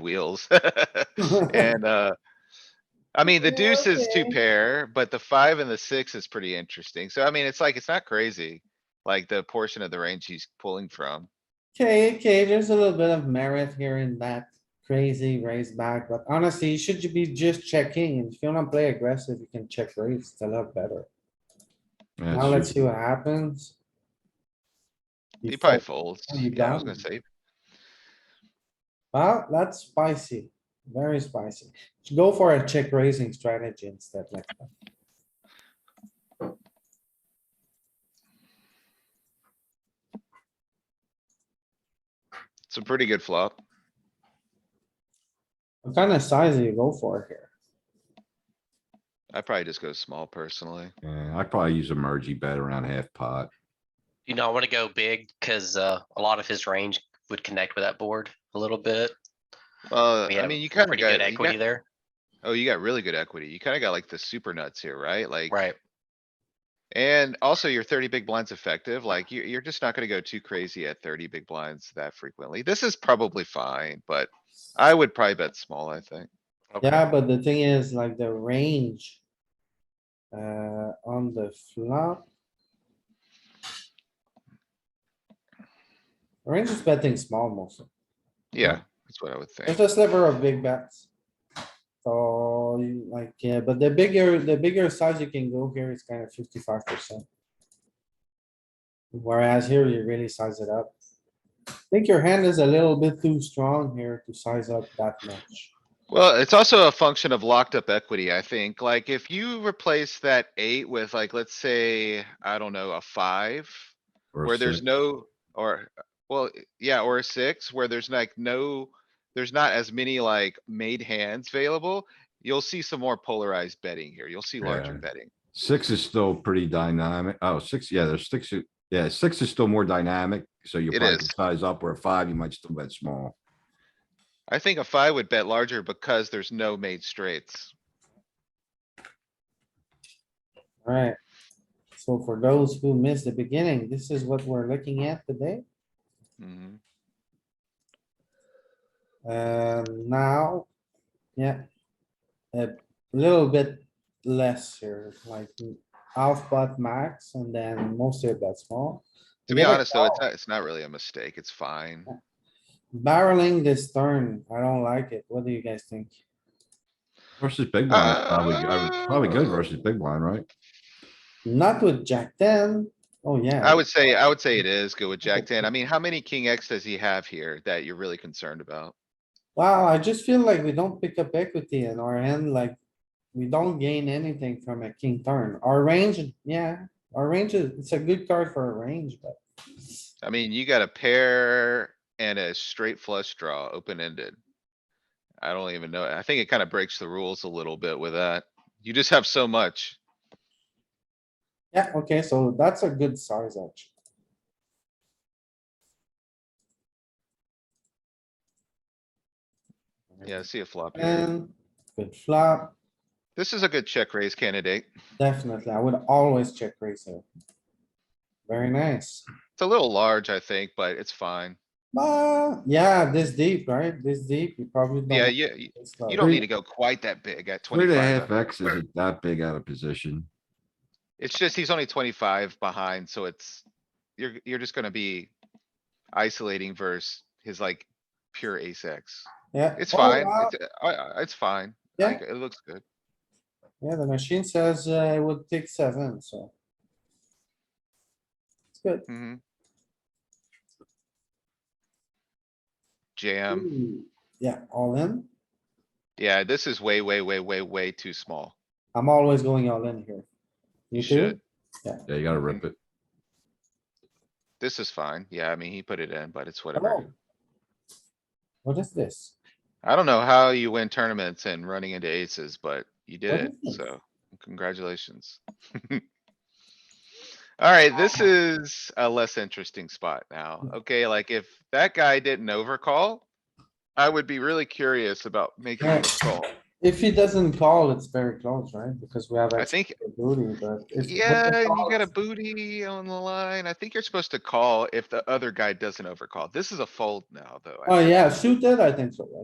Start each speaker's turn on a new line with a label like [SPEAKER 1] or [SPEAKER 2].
[SPEAKER 1] wheels. And, uh, I mean, the
[SPEAKER 2] Yeah,
[SPEAKER 1] deuce is two
[SPEAKER 2] okay.
[SPEAKER 1] pair, but the five and the six is pretty interesting. So I mean, it's like, it's not crazy. Like the portion of the range he's pulling from.
[SPEAKER 2] Okay, okay, there's a little bit of merit here in that crazy raise back, but honestly, you should be just checking. If you wanna play aggressive, you can check raise, it's a lot better.
[SPEAKER 3] Yeah,
[SPEAKER 2] Now let's
[SPEAKER 3] it's
[SPEAKER 2] see what happens. You
[SPEAKER 1] He probably
[SPEAKER 2] fold.
[SPEAKER 1] folds.
[SPEAKER 2] Oh, you
[SPEAKER 1] Yeah, I was gonna
[SPEAKER 2] down.
[SPEAKER 1] say,
[SPEAKER 2] Well, that's spicy, very spicy. Go for a check raising strategy instead like that.
[SPEAKER 1] it's a pretty good flop.
[SPEAKER 2] What kind of size do you go for here?
[SPEAKER 1] I probably just go small personally.
[SPEAKER 3] yeah, I'd probably use a mergey bet around half pot.
[SPEAKER 4] You know, I want to go big because uh, a lot of his range would connect with that board a little bit.
[SPEAKER 1] Uh,
[SPEAKER 4] We
[SPEAKER 1] I
[SPEAKER 4] have
[SPEAKER 1] mean, you kinda
[SPEAKER 4] Pretty good
[SPEAKER 1] got, you
[SPEAKER 4] equity
[SPEAKER 1] got,
[SPEAKER 4] there,
[SPEAKER 1] oh, you got really good equity. You kinda got like the super nuts here, right? Like.
[SPEAKER 4] right?
[SPEAKER 1] And also your thirty big blinds effective, like you, you're just not gonna go too crazy at thirty big blinds that frequently. This is probably fine, but I would probably bet small, I think.
[SPEAKER 4] Okay.
[SPEAKER 2] Yeah, but the thing is like the range. Uh, on the flop. Range is betting small mostly.
[SPEAKER 1] Yeah, that's what I would
[SPEAKER 2] There's
[SPEAKER 1] think.
[SPEAKER 2] a sliver of big bets. So you- like, yeah, but the bigger, the bigger size you can go here is kind of fifty-five percent. Whereas here you really size it up. I think your hand is a little bit too strong here to size up that much.
[SPEAKER 1] Well, it's also a function of locked up equity, I think. Like if you replace that eight with like, let's say, I don't know, a five.
[SPEAKER 3] or a
[SPEAKER 1] Where there's
[SPEAKER 3] six.
[SPEAKER 1] no, or, well, yeah, or a six, where there's like no, there's not as many like made hands available. You'll see some more polarized betting here. You'll see larger
[SPEAKER 3] Yeah.
[SPEAKER 1] betting.
[SPEAKER 3] Six is still pretty dynamic. Oh, six, yeah, there's six, yeah, six is still more dynamic, so you
[SPEAKER 1] It
[SPEAKER 3] probably
[SPEAKER 1] is.
[SPEAKER 3] can size up, where a five, you might still bet small.
[SPEAKER 1] I think a five would bet larger because there's no made straights.
[SPEAKER 2] Alright. So for those who missed the beginning, this is what we're looking at today.
[SPEAKER 1] Mhm.
[SPEAKER 2] Um, now, yeah. A little bit less here, like half pot max and then mostly bet small.
[SPEAKER 1] To
[SPEAKER 2] You
[SPEAKER 1] be
[SPEAKER 2] never
[SPEAKER 1] honest, though, it's not, it's not really a mistake. It's fine.
[SPEAKER 2] Barreling this turn, I don't like it. What do you guys think?
[SPEAKER 3] Versus big blind, it's probably, I would- probably good
[SPEAKER 1] Uh,
[SPEAKER 3] versus big blind, right?
[SPEAKER 2] Not with Jack ten. Oh, yeah.
[SPEAKER 1] I would say, I would say it is good with Jack ten. I mean, how many king X does he have here that you're really concerned about?
[SPEAKER 2] Wow, I just feel like we don't pick up equity in our end, like, we don't gain anything from a king turn. Our range, yeah, our range is, it's a good card for a range, but
[SPEAKER 1] I mean, you got a pair and a straight flush draw, open ended. I don't even know. I think it kind of breaks the rules a little bit with that. You just have so much.
[SPEAKER 2] yeah, okay, so that's a good size actually.
[SPEAKER 1] Yeah, I see a flop here.
[SPEAKER 2] And good flop,
[SPEAKER 1] This is a good check raise candidate.
[SPEAKER 2] definitely. I would always check raise here. Very nice.
[SPEAKER 1] It's a little large, I think, but it's fine.
[SPEAKER 2] But yeah, this deep, right? This deep, you probably.
[SPEAKER 1] Yeah,
[SPEAKER 2] don't-
[SPEAKER 1] you,
[SPEAKER 2] it's not-
[SPEAKER 1] You don't need to go quite that big at
[SPEAKER 3] Three and a half
[SPEAKER 1] twenty-five.
[SPEAKER 3] X isn't that big out of position.
[SPEAKER 1] It's just, he's only twenty-five behind, so it's, you're, you're just gonna be isolating versus his like pure ace X.
[SPEAKER 2] Yeah.
[SPEAKER 1] It's
[SPEAKER 2] Oh,
[SPEAKER 1] fine.
[SPEAKER 2] wow.
[SPEAKER 1] It's, uh, I, I, it's fine.
[SPEAKER 2] Yeah.
[SPEAKER 1] Like, it looks good.
[SPEAKER 2] Yeah, the machine says uh, it would take seven, so. It's good.
[SPEAKER 1] hmm Jam.
[SPEAKER 2] Ooh, Yeah, all in.
[SPEAKER 1] Yeah, this is way, way, way, way, way too small.
[SPEAKER 2] I'm always going all in here.
[SPEAKER 1] You
[SPEAKER 2] You too?
[SPEAKER 1] should.
[SPEAKER 3] Yeah, you gotta rip it.
[SPEAKER 1] This is fine. Yeah, I mean, he put it in, but it's
[SPEAKER 2] Come
[SPEAKER 1] whatever.
[SPEAKER 2] on. What is this?
[SPEAKER 1] I don't know how you win tournaments and running into aces, but you
[SPEAKER 2] What
[SPEAKER 1] did it,
[SPEAKER 2] is this?
[SPEAKER 1] so congratulations. Alright, this is a less interesting spot now.
[SPEAKER 2] Hmm.
[SPEAKER 1] Okay, like if that guy didn't overcall. I would be really curious about making
[SPEAKER 2] Yeah.
[SPEAKER 1] a call.
[SPEAKER 2] If he doesn't call, it's very close, right? Because we have.
[SPEAKER 1] I
[SPEAKER 2] extra
[SPEAKER 1] think,
[SPEAKER 2] Booty, but. if- but the
[SPEAKER 1] yeah, you
[SPEAKER 2] call
[SPEAKER 1] got a
[SPEAKER 2] is-
[SPEAKER 1] booty on the line. I think you're supposed to call if the other guy doesn't overcall. This is a fold now, though. I
[SPEAKER 2] Oh,
[SPEAKER 1] think.
[SPEAKER 2] yeah, suited, I think so, right?